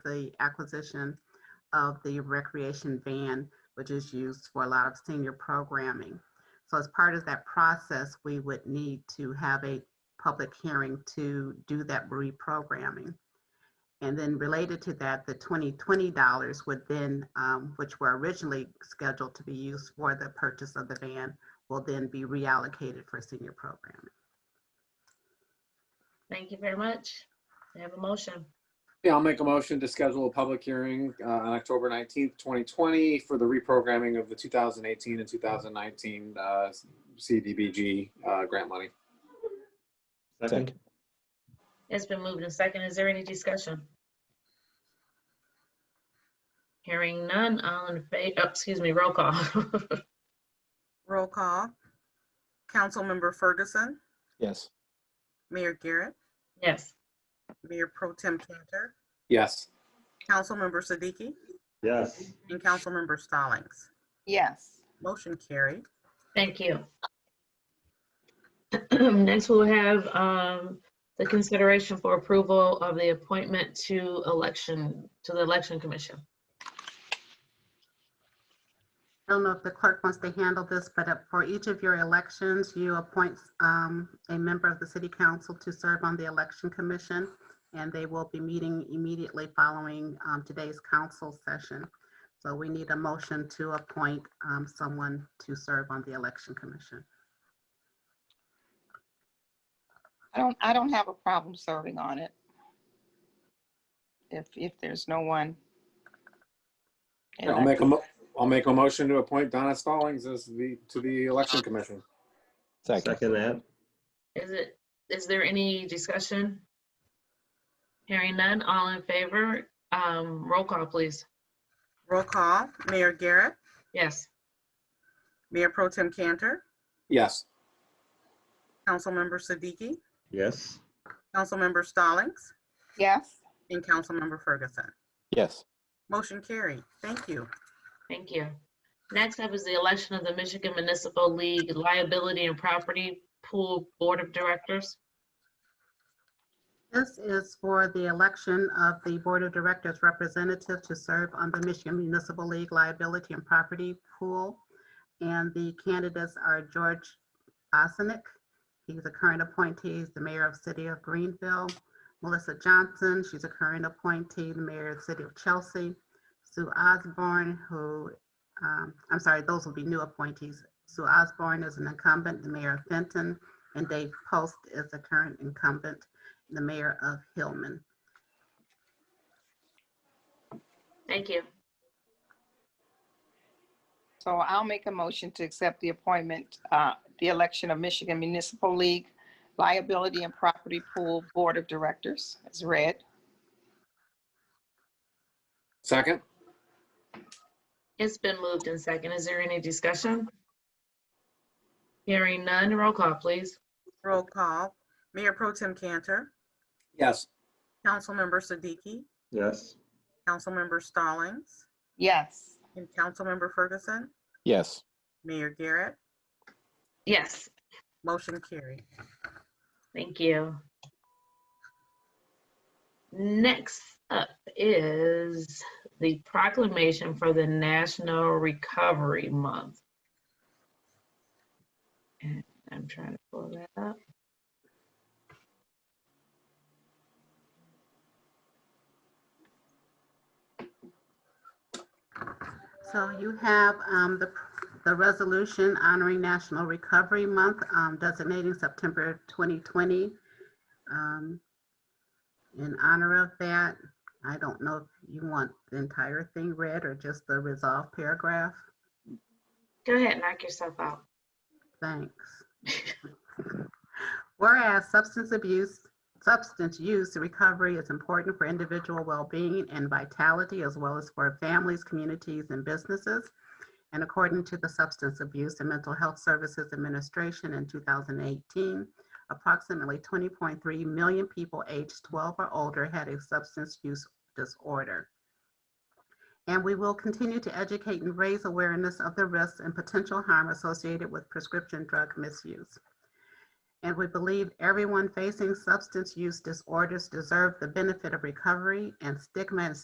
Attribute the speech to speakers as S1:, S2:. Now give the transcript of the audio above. S1: the acquisition of the recreation van, which is used for a lot of senior programming. So as part of that process, we would need to have a public hearing to do that reprogramming. And then related to that, the 2020 dollars would then, um, which were originally scheduled to be used for the purchase of the van, will then be reallocated for senior programming.
S2: Thank you very much. I have a motion.
S3: Yeah, I'll make a motion to schedule a public hearing uh, on October 19th, 2020 for the reprogramming of the 2018 and 2019 uh, CDBG uh, grant money.
S4: Second.
S2: It's been moved and second. Is there any discussion? Hearing none, all in favor, excuse me, roll call.
S5: Roll call. Councilmember Ferguson,
S4: Yes.
S5: Mayor Garrett,
S2: Yes,
S5: Mayor Pro Tem Cantor,
S3: Yes.
S5: Councilmember Siddiqui,
S6: Yes,
S5: and Councilmember Stallings.
S7: Yes.
S5: Motion carried.
S2: thank you. Next, we'll have um, the consideration for approval of the appointment to election, to the election commission.
S1: I don't know if the clerk wants to handle this, but uh, for each of your elections, you appoint um, a member of the city council to serve on the election commission, and they will be meeting immediately following um, today's council session. So we need a motion to appoint um, someone to serve on the election commission.
S7: I don't, I don't have a problem serving on it. If, if there's no one. And
S3: I'll
S7: I-
S3: make a, mo- I'll make a motion to appoint Donna Stallings as the, to the election commission.
S4: Second.
S6: second that.
S2: Is it, is there any discussion? Hearing none, all in favor, um, roll call, please.
S5: Roll call. Mayor Garrett,
S2: Yes,
S5: Mayor Pro Tem Cantor,
S3: Yes.
S5: Councilmember Siddiqui,
S6: Yes,
S5: Councilmember Stallings,
S7: Yes,
S5: and Councilmember Ferguson.
S4: Yes.
S5: Motion carried. Thank you.
S2: thank you. Next up is the election of the Michigan Municipal League Liability and Property Pool Board of Directors.
S1: This is for the election of the board of directors representative to serve on the Michigan Municipal League Liability and Property Pool. And the candidates are George Bosnick. He's a current appointee, he's the mayor of City of Greenville. Melissa Johnson, she's a current appointee, the mayor of City of Chelsea. Sue Osborne, who, um, I'm sorry, those will be new appointees. Sue Osborne is an incumbent, the mayor of Fenton, and Dave Post is the current incumbent, the mayor of Hillman.
S2: Thank you.
S7: so I'll make a motion to accept the appointment, uh, the election of Michigan Municipal League Liability and Property Pool Board of Directors as read.
S3: Second?
S2: It's been moved and second. Is there any discussion? Hearing none, roll call, please.
S5: Roll call. Mayor Pro Tem Cantor,
S3: Yes.
S5: Councilmember Siddiqui,
S6: yes,
S5: Councilmember Stallings,
S7: Yes,
S5: and Councilmember Ferguson,
S4: Yes.
S5: Mayor Garrett.
S2: Yes,
S5: Motion carried.
S2: Thank you. Next up is the proclamation for the National Recovery Month. And I'm trying to pull that up.
S1: So you have um, the, the resolution honoring National Recovery Month, um, designating September 2020. um, In honor of that, I don't know if you want the entire thing read or just the resolved paragraph.
S2: Go ahead, knock yourself out.
S1: Thanks. Whereas substance abuse, substance use recovery is important for individual well-being and vitality as well as for families, communities, and businesses. And according to the Substance Abuse and Mental Health Services Administration in 2018, approximately 20.3 million people aged 12 or older had a substance use disorder. And we will continue to educate and raise awareness of the risks and potential harm associated with prescription drug misuse. And we believe everyone facing substance use disorders deserve the benefit of recovery and stigma and